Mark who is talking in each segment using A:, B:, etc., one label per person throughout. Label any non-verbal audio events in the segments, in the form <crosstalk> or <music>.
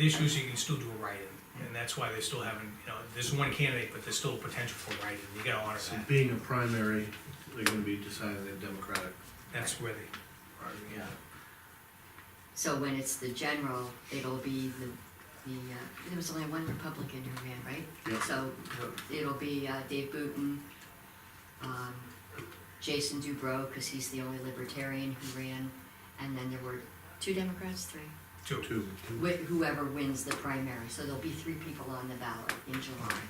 A: The issue is you can still do a write-in, and that's why they still haven't, you know, there's one candidate, but there's still potential for a write-in, you gotta honor
B: So
A: that.
B: being a primary, they're gonna be deciding the Democratic
A: That's where they,
B: Party.
A: yeah.
C: So when it's the general, it'll be the, the, uh, there was only one Republican who ran, right?
B: Yeah.
C: So it'll be uh, Dave Booton, um, Jason Dubrow, because he's the only libertarian who ran, and then there were two Democrats, three,
A: Two,
B: Two.
C: Wh- whoever wins the primary, so there'll be three people on the ballot in July.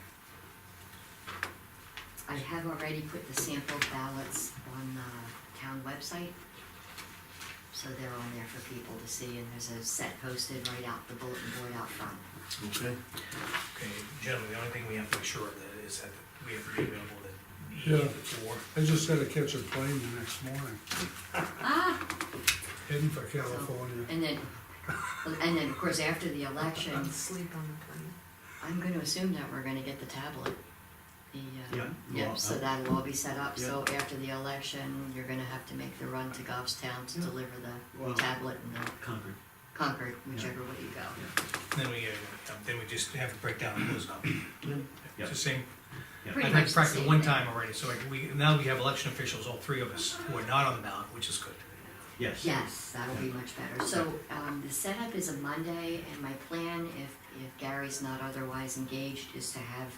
C: I have already put the sample ballots on the town website, so they're on there for people to see, and there's a set posted right out, the bulletin board out front.
B: Okay,
A: okay, gentlemen, the only thing we have to make sure of that is that we have to be available that
D: Yeah.
A: evening before.
D: I just had to catch a plane the next morning,
C: Ah,
D: heading for California.
C: And then, and then, of course, after the election,
E: Sleep on the plane.
C: I'm gonna assume that we're gonna get the tablet. The, uh,
B: Yeah,
C: yeah,
B: well, uh,
C: so
B: I-
C: that'll all be set up, so after the election, you're gonna have to make the run to Goffstown to deliver the
B: Well-
C: tablet and the
B: Concord.
C: Concord, whichever way you go.
A: Then we, uh, then we just have to break down and close it up.
B: Yeah.
A: It's the same,
B: Yeah.
C: Pretty
A: I've
C: much
A: had
C: the
A: practice
C: same
A: one
C: thing.
A: time already, so like, we, now we have election officials, all three of us, who are not on the ballot, which is good.
B: Yes.
C: Yes, that'll be much better. So, um, the setup is a Monday, and my plan, if, if Gary's not otherwise engaged, is to have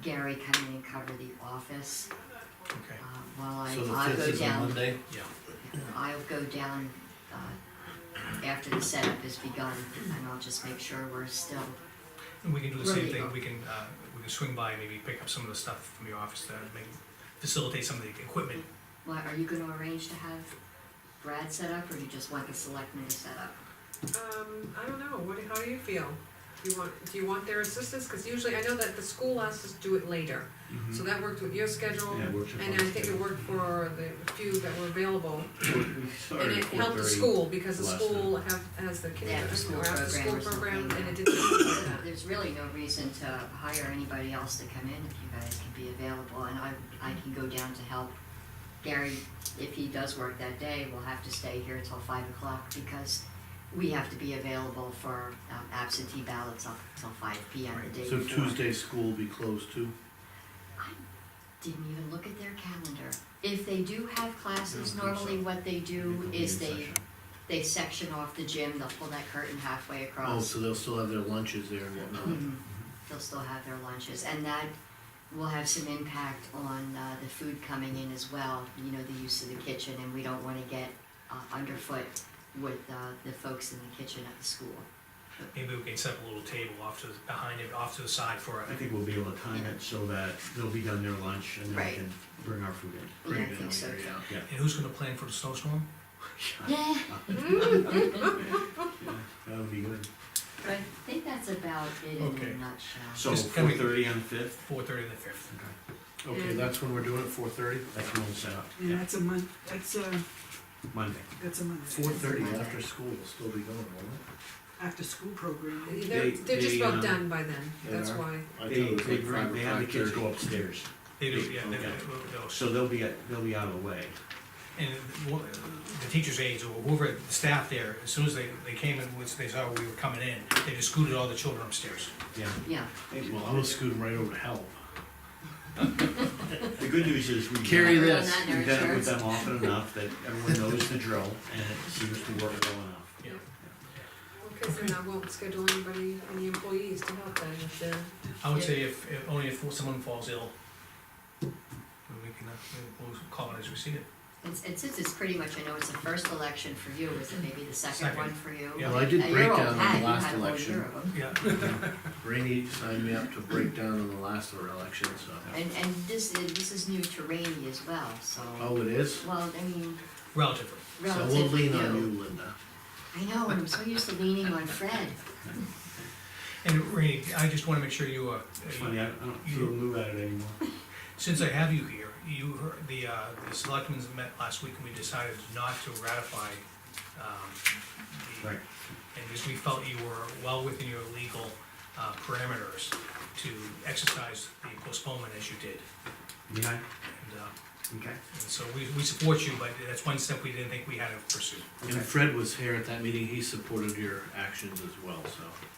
C: Gary come in and cover the office,
A: Okay,
C: uh, while I, I
B: So
C: go
B: the
C: down.
B: fifth is a Monday?
A: yeah,
C: I'll go down, uh, after the setup has begun, and I'll just make sure we're still,
A: and we can do the same
C: Right.
A: thing, we can, uh, we can swing by and maybe pick up some of the stuff from your office to make, facilitate some of the equipment.
C: well, are you gonna arrange to have Brad set up, or you just want the selectmen to set up?
E: Um, I don't know, what, how do you feel? Do you want, do you want their assistance? Cause usually, I know that the school lets us do it later, so that worked with your schedule.
B: Mm-hmm. Yeah, worked with
E: Mm-hmm. And
B: my
E: I think it
B: schedule.
E: worked for the few that were available,
B: We <laughs>
E: and
B: started
E: it
B: at
E: helped the
B: 4:30.
E: school, because the
B: last
E: school have, has the kindergarten,
C: after-school
E: or after-school
C: program or
E: program,
C: something.
E: and
B: <coughs>
E: it didn't.
C: There's really no reason to hire anybody else to come in if you guys can be available, and I, I can go down to help. Gary, if he does work that day, will have to stay here till five o'clock, because we have to be available for um, absentee ballots up till five P M the day
B: So
C: before.
B: Tuesday, school will be closed too?
C: I didn't even look at their calendar. If they do have classes,
B: I don't think
C: normally
B: so.
C: what they do
B: It'll be in
C: is they,
B: session.
C: they section off the gym, they'll pull that curtain halfway
B: Oh,
C: across.
B: so they'll still have their lunches there and
E: Mm-hmm.
B: whatnot?
C: Mhm. They'll still have their lunches, and that will have some impact on uh, the food coming in as well, you know, the use of the kitchen, and we don't wanna get uh, underfoot with uh, the folks in the kitchen at the school.
A: Maybe we can set up a little table off to, behind it, off to the side for,
F: I think we'll be able to time it so that they'll be done their lunch and then
C: Right.
F: we can bring our food in.
B: Bring
C: Yeah,
B: it
C: I
B: in
C: think so
B: later,
C: too.
B: yeah.
F: Yeah.
A: and who's gonna plan for the snowstorm?
C: Yeah,
F: That would be good.
C: but I think that's about it in
D: Okay.
C: a nutshell.
F: So
A: Just coming-
F: four thirty on the fifth,
A: Four thirty and the fifth.
B: Okay,
E: And-
B: that's when we're doing it, four thirty?
F: that's when we'll set up,
G: Yeah, that's a month, that's a,
F: Monday.
G: that's a month.
B: Four thirty after school will still be going, won't
G: After school program.
E: They're,
F: They-
E: they're just
F: they,
E: about
F: um,
E: done by then,
B: they
E: that's
B: are?
E: why.
B: it? I
F: They,
B: thought it was
F: they
B: like
F: bring-
B: five or
F: they have the kids
B: 5:30.
F: go upstairs,
A: They do, yeah, they,
F: Okay.
A: they'll-
F: so they'll be, at- they'll be out of the way.
A: And wh- the teacher's aides or whoever, the staff there, as soon as they, they came in, once they saw we were coming in, they just scooted all the children upstairs.
F: Yeah.
C: Yeah,
B: Well, I'm gonna scoot 'em right over to help.
F: The good news is we.
B: Carry
C: Everyone
B: this.
C: on their
F: We've done it with
C: shirts.
F: them often enough that everyone knows the drill and it seems to work well enough.
A: Yeah.
E: Because then I won't schedule anybody, any employees to help them if they're.
A: I would say if, if, only if someone falls ill, then we can, uh, we'll call it as we see it.
C: And and since it's pretty much, I know it's the first election for you, is it maybe the second
A: Second.
C: one for you?
A: Yeah.
B: Well, I did
C: Now,
B: break
C: you're all
B: down on
C: packed, you
B: the last
C: had a whole year
B: election.
C: of 'em.
A: Yeah,
B: Rainey signed me up to break down on the last election, so.
C: And, and this, is- this is new to Rainey as well, so,
B: Oh, it is?
C: well, I mean,
A: relatively.
B: So we'll
C: relatively
B: lean on
C: new.
B: you, Linda.
C: I know, and I'm so used to leaning on Fred.
A: And Rainey, I just wanna make sure you, uh,
F: It's funny, I I don't feel new at it anymore.
A: Since I have you here, you heard, the, uh, the selectmen met last week and we decided not to ratify, um, the.
F: Right.
A: And because we felt you were well within your legal, uh, parameters to exercise the postponement as you did.
F: Yeah,
A: And, uh,
F: okay.
A: and so we, we support you, but that's one step we didn't think we had to pursue.
B: And Fred was here at that meeting, he supported your actions as well, so.